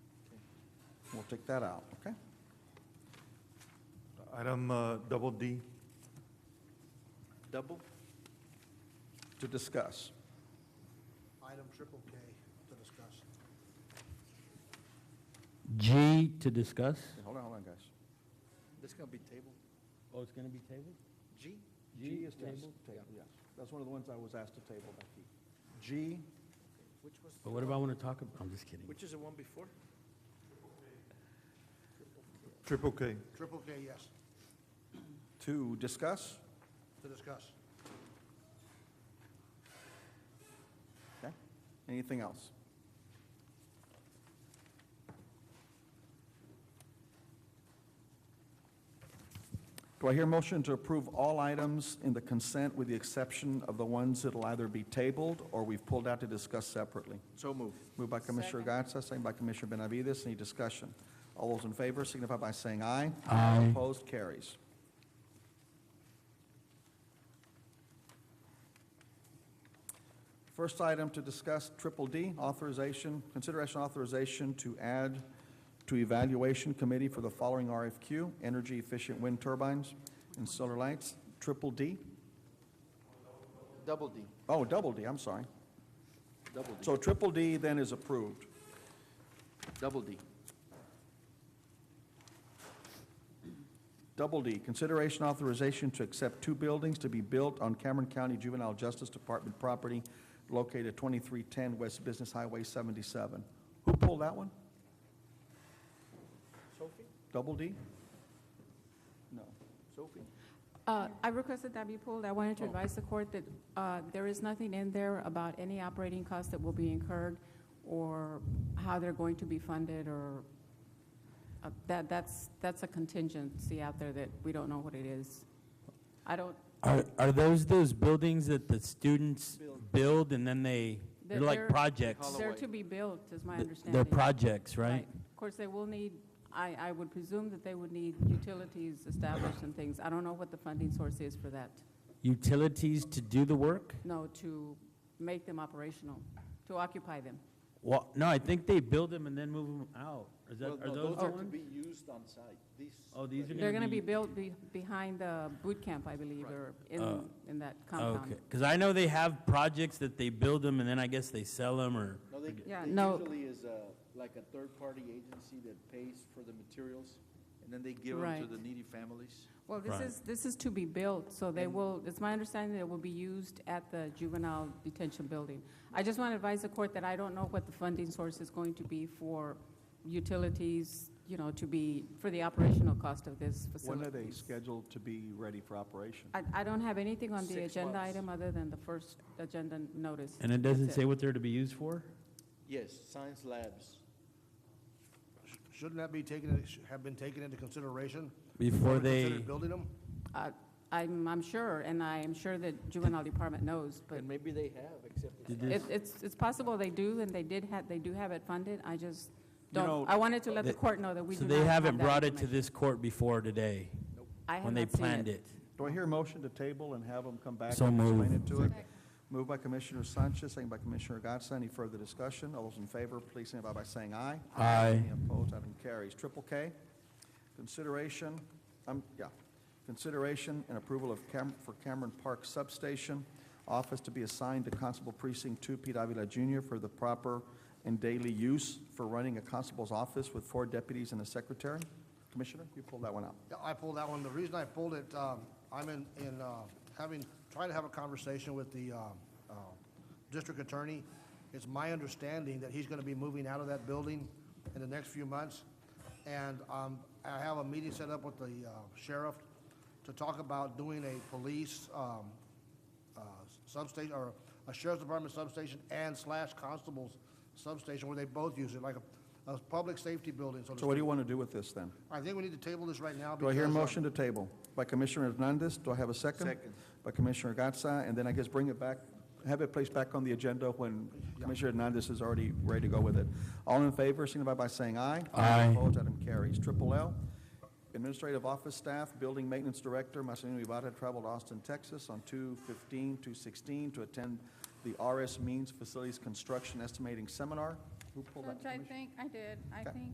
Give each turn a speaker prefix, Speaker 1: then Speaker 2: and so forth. Speaker 1: take that out, okay?
Speaker 2: Item uh, double D,
Speaker 1: Double? To discuss.
Speaker 3: Item triple K to discuss.
Speaker 4: G to discuss.
Speaker 1: Hey, Hold on, hold on, guys.
Speaker 3: This gonna be tabled?
Speaker 4: Oh, it's going to be tabled?
Speaker 3: G?
Speaker 4: G is
Speaker 1: Yes,
Speaker 4: tabled?
Speaker 1: Table, yes. That's one of the ones I was asked to table, Becky. G,
Speaker 3: Which was,
Speaker 4: But what if I want to talk about, I'm just kidding.
Speaker 3: which is the one before?
Speaker 2: triple K,
Speaker 3: Triple K, yes,
Speaker 1: to discuss,
Speaker 3: to discuss.
Speaker 1: okay? Anything else? Do I hear motion to approve all items in the consent with the exception of the ones that'll either be tabled or we've pulled out to discuss separately?
Speaker 3: So moved.
Speaker 1: Moved by Commissioner Gatsa, second by Commissioner Benavides. Any discussion? All those in favor signify by saying aye.
Speaker 4: Aye.
Speaker 1: Opposed, carries. First item to discuss, triple D, authorization, consideration authorization to add to evaluation committee for the following RFQ, energy efficient wind turbines and solar lights, triple D?
Speaker 3: Double D,
Speaker 1: Oh, double D, I'm sorry.
Speaker 3: double D,
Speaker 1: So triple D then is approved.
Speaker 3: double D.
Speaker 1: Double D, consideration authorization to accept two buildings to be built on Cameron County Juvenile Justice Department property located at 2310 West Business Highway 77. Who pulled that one?
Speaker 3: Sophie,
Speaker 1: Double D? No.
Speaker 3: Sophie?
Speaker 5: Uh, I requested that be pulled. I wanted to advise the court that uh, there is nothing in there about any operating costs that will be incurred or how they're going to be funded or, uh, that, that's, that's a contingency out there that we don't know what it is. I don't,
Speaker 4: Are, are those those buildings that the students build and then they,
Speaker 5: They're-
Speaker 4: they're like
Speaker 5: they're-
Speaker 4: projects?
Speaker 5: they're to be built, is my
Speaker 4: Th-
Speaker 5: understanding.
Speaker 4: They're projects, right?
Speaker 5: Of course, they will need, I, I would presume that they would need utilities established and things. I don't know what the funding source is for that.
Speaker 4: Utilities to do the work?
Speaker 5: No, to make them operational, to occupy them.
Speaker 4: Well, no, I think they build them and then move them out. Is that, are those the ones?
Speaker 3: used on site, these.
Speaker 4: Oh, these are
Speaker 5: They're
Speaker 4: going to
Speaker 5: be
Speaker 4: be.
Speaker 5: built be- behind the boot camp, I believe, or in,
Speaker 4: Oh.
Speaker 5: in that
Speaker 4: Okay,
Speaker 5: compound.
Speaker 4: because I know they have projects that they build them and then I guess they sell them or.
Speaker 6: No, they,
Speaker 5: Yeah,
Speaker 6: they
Speaker 5: no.
Speaker 6: usually is a, like a third-party agency that pays for the materials, and then they give them to
Speaker 5: Right.
Speaker 6: the needy families.
Speaker 5: Well, this
Speaker 4: Right.
Speaker 5: is, this is to be built, so they will, it's my understanding that it will be used at the juvenile detention building. I just want to advise the court that I don't know what the funding source is going to be for utilities, you know, to be, for the operational cost of this
Speaker 1: When are
Speaker 5: facility.
Speaker 1: they scheduled to be ready for operation?
Speaker 5: I, I don't have anything on the
Speaker 6: Six
Speaker 5: agenda
Speaker 6: months.
Speaker 5: item other than the first agenda notice.
Speaker 4: And it doesn't
Speaker 5: That's
Speaker 4: say what they're to be used for?
Speaker 6: Yes, science labs.
Speaker 3: Shouldn't that be taken, have been taken into consideration?
Speaker 4: Before
Speaker 3: when we
Speaker 4: they.
Speaker 3: considered Building them?
Speaker 5: Uh, I'm, I'm sure, and I am sure that juvenile department knows, but
Speaker 6: And maybe they have, except it's
Speaker 4: Did
Speaker 6: not-
Speaker 5: it- it's, it's possible they do, and they did have, they do have it funded, I just
Speaker 1: know,
Speaker 5: don't, I wanted to let the
Speaker 4: they-
Speaker 5: court know that we do
Speaker 4: So
Speaker 5: not
Speaker 4: they
Speaker 5: have
Speaker 4: haven't
Speaker 5: that
Speaker 4: brought it to
Speaker 5: information.
Speaker 4: this court before today,
Speaker 5: I have
Speaker 4: when they
Speaker 5: not seen
Speaker 4: planned it.
Speaker 1: Do I hear a motion to table and have them come back
Speaker 4: So
Speaker 1: and explain it
Speaker 4: moved.
Speaker 1: to it? Moved by Commissioner Sanchez, second by Commissioner Gatsa. Any further discussion? All those in favor, please signify by saying aye.
Speaker 4: Aye.
Speaker 1: Any opposed, item carries. Triple K, consideration, um, yeah, consideration and approval of Cam, for Cameron Park Substation, office to be assigned to Constable Precinct Two, Pete Avila Jr. for the proper and daily use for running a constable's office with four deputies and a secretary. Commissioner, you pulled that one out.
Speaker 3: Yeah, I pulled that one. The reason I pulled it, um, I'm in, in, uh, having, trying to have a conversation with the, um, uh, district attorney. It's my understanding that he's gonna be moving out of that building in the next few months. And, um, I have a meeting set up with the, uh, sheriff to talk about doing a police, um, uh, substation, or a sheriff's department substation and slash constable's substation, where they both use it, like a, a public safety building, so to
Speaker 1: So what do
Speaker 3: speak.
Speaker 1: you want to do with this, then?
Speaker 3: I think we need to table this right now.
Speaker 1: Do I hear a
Speaker 3: because, um,
Speaker 1: motion to table? By Commissioner Hernandez, do I have a second?
Speaker 6: Second.
Speaker 1: By Commissioner Gatsa, and then I guess bring it back, have it placed back on the agenda when Commissioner Hernandez is already ready to go with it. All in favor, signify by saying aye.
Speaker 4: Aye.
Speaker 1: Opposed, item carries. Triple L, Administrative Office Staff, Building Maintenance Director, Marcelino Ibarra traveled to Austin, Texas on 2/15/216 to attend the RS Means Facilities Construction Estimating Seminar. Who pulled that?
Speaker 7: Judge, I think, I did, I
Speaker 1: Okay.
Speaker 7: think